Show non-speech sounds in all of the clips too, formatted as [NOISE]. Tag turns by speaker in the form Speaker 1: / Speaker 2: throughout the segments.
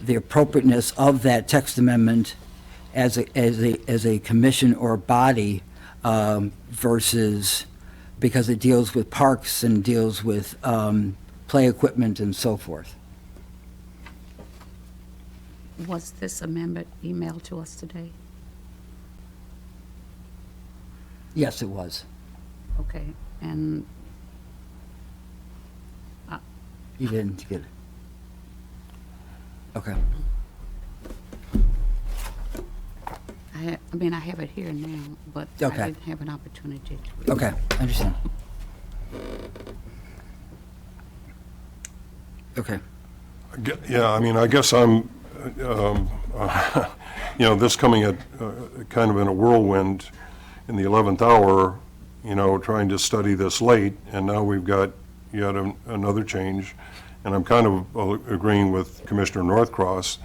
Speaker 1: the appropriateness of that text amendment as a, as a, as a commission or body um, versus, because it deals with parks and deals with um, play equipment and so forth.
Speaker 2: Was this amendment emailed to us today?
Speaker 1: Yes, it was.
Speaker 2: Okay, and
Speaker 1: You didn't get it. Okay.
Speaker 2: I, ha- I mean, I have it here now, but I
Speaker 1: Okay.
Speaker 2: didn't have an opportunity to read.
Speaker 1: Okay, I understand. Okay.
Speaker 3: Ge- Yeah, I mean, I guess I'm, um, [LAUGHS] you know, this coming at, uh, kind of in a whirlwind in the 11th hour, you know, trying to study this late, and now we've got yet an- another change. And I'm kind of uh, agreeing with Commissioner Northcross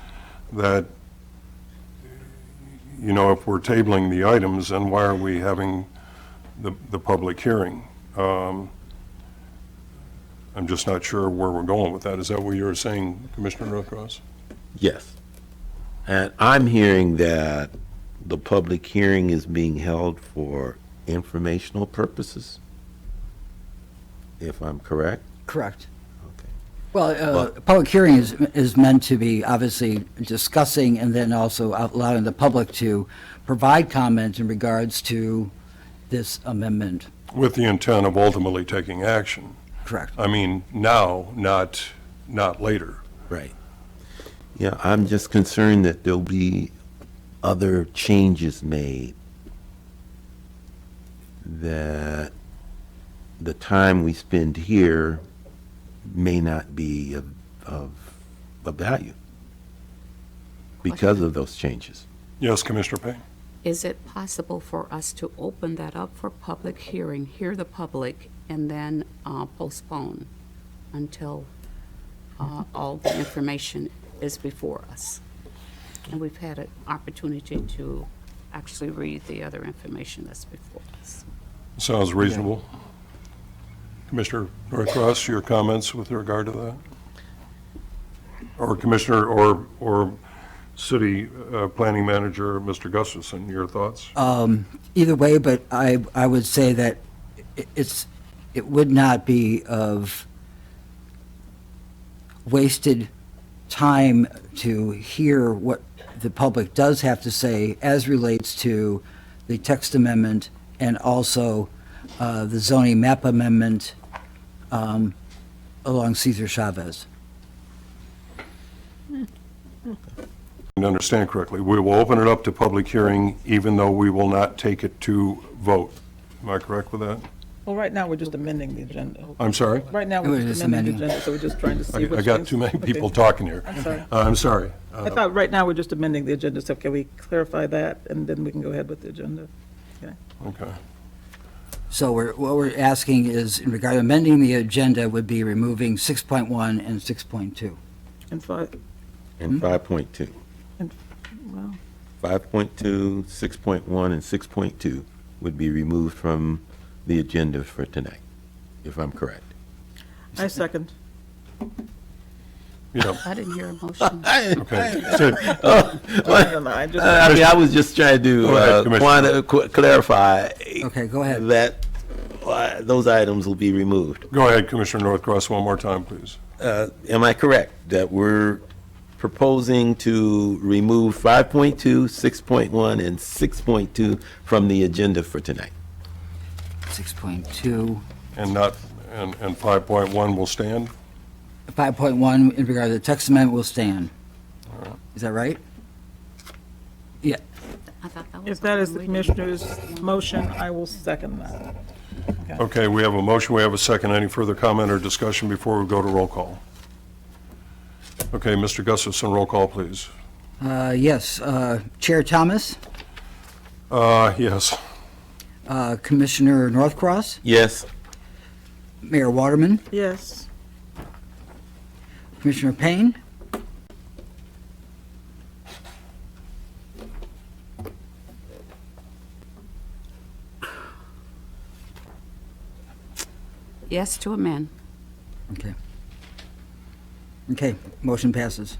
Speaker 3: that, you know, if we're tabling the items, then why are we having the, the public hearing? Um, I'm just not sure where we're going with that. Is that what you were saying, Commissioner Northcross?
Speaker 4: Yes. And I'm hearing that the public hearing is being held for informational purposes, if I'm correct?
Speaker 1: Correct.
Speaker 4: Okay.
Speaker 1: Well, uh, public hearing is, is meant to be obviously discussing and then also allowing the public to provide comment in regards to this amendment.
Speaker 3: With the intent of ultimately taking action.
Speaker 1: Correct.
Speaker 3: I mean, now, not, not later.
Speaker 4: Right. Yeah, I'm just concerned that there'll be other changes made that the time we spend here may not be of, of, of value because of those changes.
Speaker 3: Yes, Commissioner Payne?
Speaker 2: Is it possible for us to open that up for public hearing, hear the public, and then uh, postpone until uh, all the information is before us? And we've had an opportunity to actually read the other information that's before us.
Speaker 3: Sounds reasonable. Commissioner Northcross, your comments with regard to that? Or Commissioner, or, or City uh, Planning Manager, Mr. Gustafson, your thoughts?
Speaker 1: Either way, but I, I would say that i- it's, it would not be of wasted time to hear what the public does have to say as relates to the text amendment and also uh, the zoning map amendment um, along Cesar Chavez.
Speaker 3: And understand correctly, we will open it up to public hearing even though we will not take it to vote. Am I correct with that?
Speaker 5: Well, right now, we're just amending the agenda.
Speaker 3: I'm sorry?
Speaker 5: Right now,
Speaker 1: We're
Speaker 5: we're just
Speaker 1: just
Speaker 5: amending the
Speaker 1: amending.
Speaker 5: agenda, so we're just trying to
Speaker 3: I
Speaker 5: see which
Speaker 3: I
Speaker 5: things.
Speaker 3: got too many
Speaker 5: okay.
Speaker 3: people talking here.
Speaker 5: I'm sorry.
Speaker 3: Uh, I'm sorry.
Speaker 5: I thought, right now, we're just amending the agenda, so can we clarify that, and then we can go ahead with the agenda? Okay.
Speaker 3: Okay.
Speaker 1: So we're, what we're asking is, in regard to amending the agenda, would be removing 6.1 and 6.2.
Speaker 5: And five,
Speaker 1: Hmm?
Speaker 4: And 5.2.
Speaker 5: and, well,
Speaker 4: 5.2, 6.1, and 6.2 would be removed from the agenda for tonight, if I'm correct.
Speaker 5: I second.
Speaker 3: Yeah,
Speaker 2: I didn't hear a motion.
Speaker 3: okay. So,
Speaker 4: [LAUGHS]
Speaker 5: I don't know, I just,
Speaker 4: Oh, I mean, I was just trying to
Speaker 3: Go ahead,
Speaker 4: uh,
Speaker 3: Commissioner.
Speaker 4: want to qu- clarify
Speaker 1: Okay, go ahead.
Speaker 4: that uh, those items will be removed.
Speaker 3: Go ahead, Commissioner Northcross, one more time, please.
Speaker 4: Uh, Am I correct that we're proposing to remove 5.2, 6.1, and 6.2 from the agenda for tonight?
Speaker 1: 6.2.
Speaker 3: And not, and, and 5.1 will stand?
Speaker 1: 5.1 in regard to the text amendment will stand. Is that right? Yeah,
Speaker 2: I thought that was
Speaker 5: if that
Speaker 2: all
Speaker 5: is
Speaker 2: we
Speaker 5: the
Speaker 2: did.
Speaker 5: commissioner's motion, I will second that.
Speaker 3: Okay, we have a motion, we have a second. Any further comment or discussion before we go to roll call? Okay, Mr. Gustafson, roll call, please.
Speaker 1: Uh, yes. uh, Chair Thomas,
Speaker 3: Uh, yes.
Speaker 1: uh, Commissioner Northcross,
Speaker 4: Yes,
Speaker 1: Mayor Waterman,
Speaker 5: Yes,
Speaker 1: Commissioner Payne.
Speaker 2: Yes to amend.
Speaker 1: Okay. Okay, motion passes.